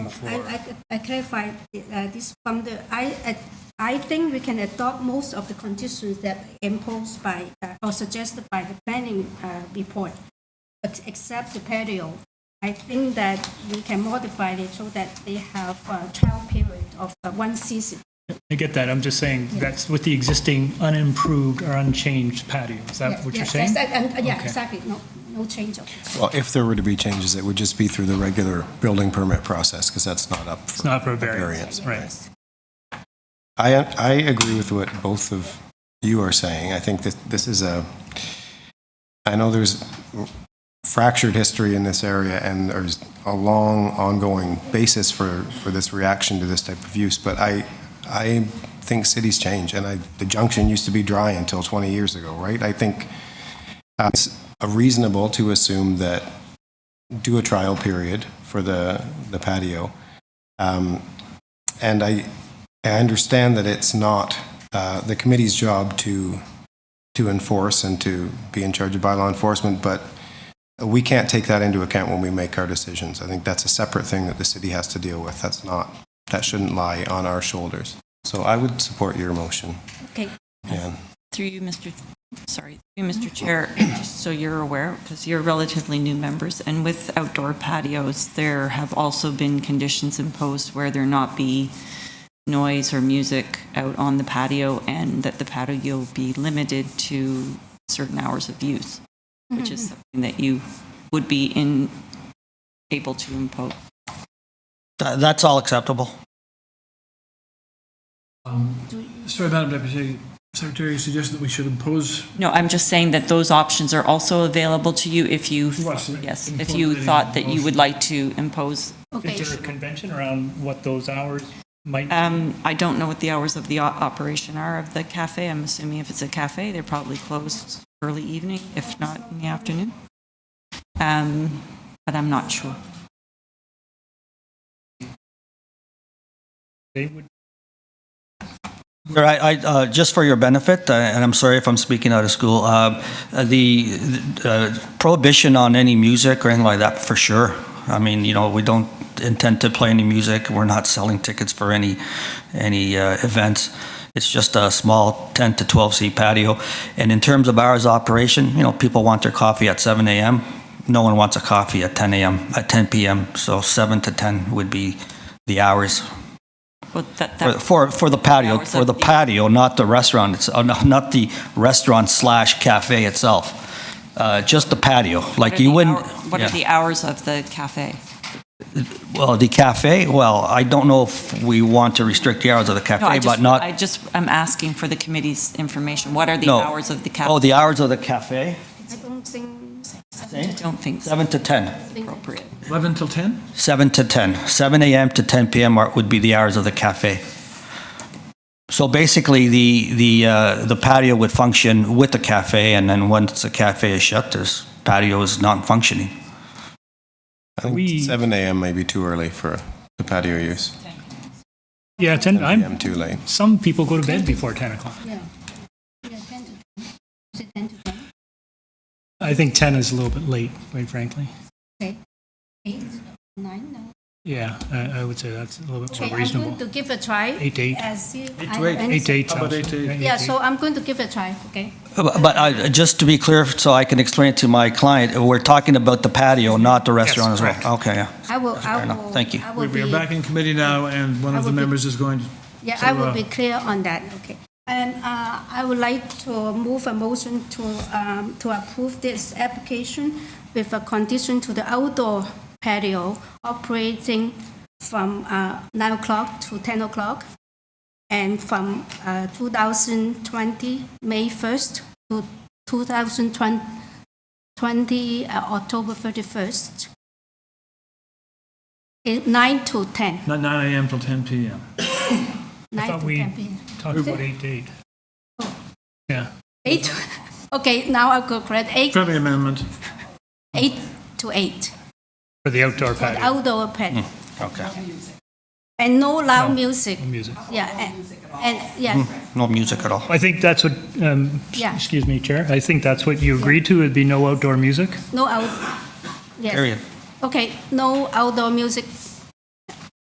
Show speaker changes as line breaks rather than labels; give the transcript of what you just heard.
for?
I, I, I clarify uh, this from the, I, I- I think we can adopt most of the conditions that imposed by, uh, or suggested by the planning uh, report, ex- except the patio. I think that we can modify it so that they have a trial period of uh, one season.
I get that, I'm just saying, that's with the existing unimproved or unchanged patio, is that
Yeah,
what you're
yes,
saying?
yes, and- and- Yeah,
Okay.
exactly, no, no change of it.
Well, if there were to be changes, it would just be through the regular building permit process, because that's not up
It's
for
not for a
variance.
variance, right?
Yes.
I, I agree with what both of you are saying. I think that this is a, I know there's fractured history in this area, and there's a long ongoing basis for, for this reaction to this type of use, but I, I think cities change, and I, the junction used to be dry until 20 years ago, right? I think uh, it's reasonable to assume that, do a trial period for the, the patio. Um, And I, I understand that it's not uh, the committee's job to, to enforce and to be in charge of bylaw enforcement, but we can't take that into account when we make our decisions. I think that's a separate thing that the city has to deal with. That's not, that shouldn't lie on our shoulders. So I would support your motion.
Okay.
Ann.
Through you, Mr., sorry, through you, Mr. Chair, just so you're aware, because you're relatively new members, and with outdoor patios, there have also been conditions imposed where there not be noise or music out on the patio, and that the patio be limited to certain hours of use, which is something that you would be in, able to impose.
Th- That's all acceptable.
Sorry, Madam Deputy Secretary, you suggested that we should impose.
No, I'm just saying that those options are also available to you if you,
Yes, in-
yes,
in
if you
formulating
thought that you
motion.
would like to impose
Okay,
Is there a convention around what those hours might,
Uh,
Um, I don't know what the hours of the o- operation are of the cafe. I'm assuming if it's a cafe, they're probably closed early evening, if not in the afternoon. Um, but I'm not sure.
they would,
Sir, I, I, uh, just for your benefit, uh, and I'm sorry if I'm speaking out of school, uh, uh, the uh, prohibition on any music or anything like that, for sure. I mean, you know, we don't intend to play any music. We're not selling tickets for any, any uh, events. It's just a small 10 to 12 seat patio. And in terms of hours of operation, you know, people want their coffee at 7 a.m. No one wants a coffee at 10 a.m., at 10 p.m. So 7 to 10 would be the hours
Well, that,
For,
that,
for, for the patio,
Hours
for
of
the
the-
patio, not the restaurant, it's, uh, no- not the restaurant slash cafe itself. Uh, just the patio,
what
like
are
you
the
wouldn't.
hour- What are
yeah.
the hours of the cafe?
Well, the cafe, well, I don't know if we want to restrict the hours of the
No, I
cafe, but
just,
not.
I just, I'm asking for the committee's information. What are the
No.
hours of the
Oh,
cafe?
the hours of the cafe,
I don't think.
I don't think it's
seven to ten.
appropriate.
11 till 10?
Seven to ten. Seven a.m. to ten p.m. are- would be the hours of the cafe. So basically, the the uh, the patio would function with the cafe, and then once the cafe is shut, this patio is non-functioning.
I think
We-
7 AM may be too early for the patio use.
yeah, 10,
7
I'm,
PM too late.
some people go to bed before 10 o'clock.
Yeah. Yeah, 10 to 10. Is it 10 to 10?
I think 10 is a little bit late, quite frankly.
Okay. Eight, nine, no.
Yeah, I, I would say that's a little bit
Okay,
more
I'm
reasonable.
going to give a try.
Eight to eight.
and see if I
to
have
eight.
any-
Eight to eight
How
sounds.
about eight to eight?
Yeah, so I'm going to give a try, okay?
But but I, just to be clear, so I can explain it to my client, we're talking about the patio, not the restaurant as
correct.
well. Okay, yeah.
I will, I
fair enough.
will.
Thank you.
I will
We are
be-
back in committee now, and one
I
of
will
the
be-
members is going to
Yeah, I
So,
will
uh,
be clear on that, okay. And uh, I would like to move a motion to, um, to approve this application with a condition to the outdoor patio operating from uh, 9 o'clock to 10 o'clock and from uh, 2020, May 1st to 2020, uh, October 31st. Eh, 9 to 10.
Not 9 AM till 10 PM.
9
thought
to
we-
10 p.m.
Talk about eight to eight.
Oh.
Yeah,
Eight. Okay, now I'll go correct. Eight,
Friendly amendment.
eight to eight.
for the outdoor
For the
patio,
outdoor pet.
Okay.
And no loud music.
no music.
Yeah. And, and yeah,
No music at all.
I think that's what, um,
Yeah.
excuse me, Chair, I think that's what you agreed to, would be no outdoor music?
no out. Yes.
Period.
Okay, no outdoor music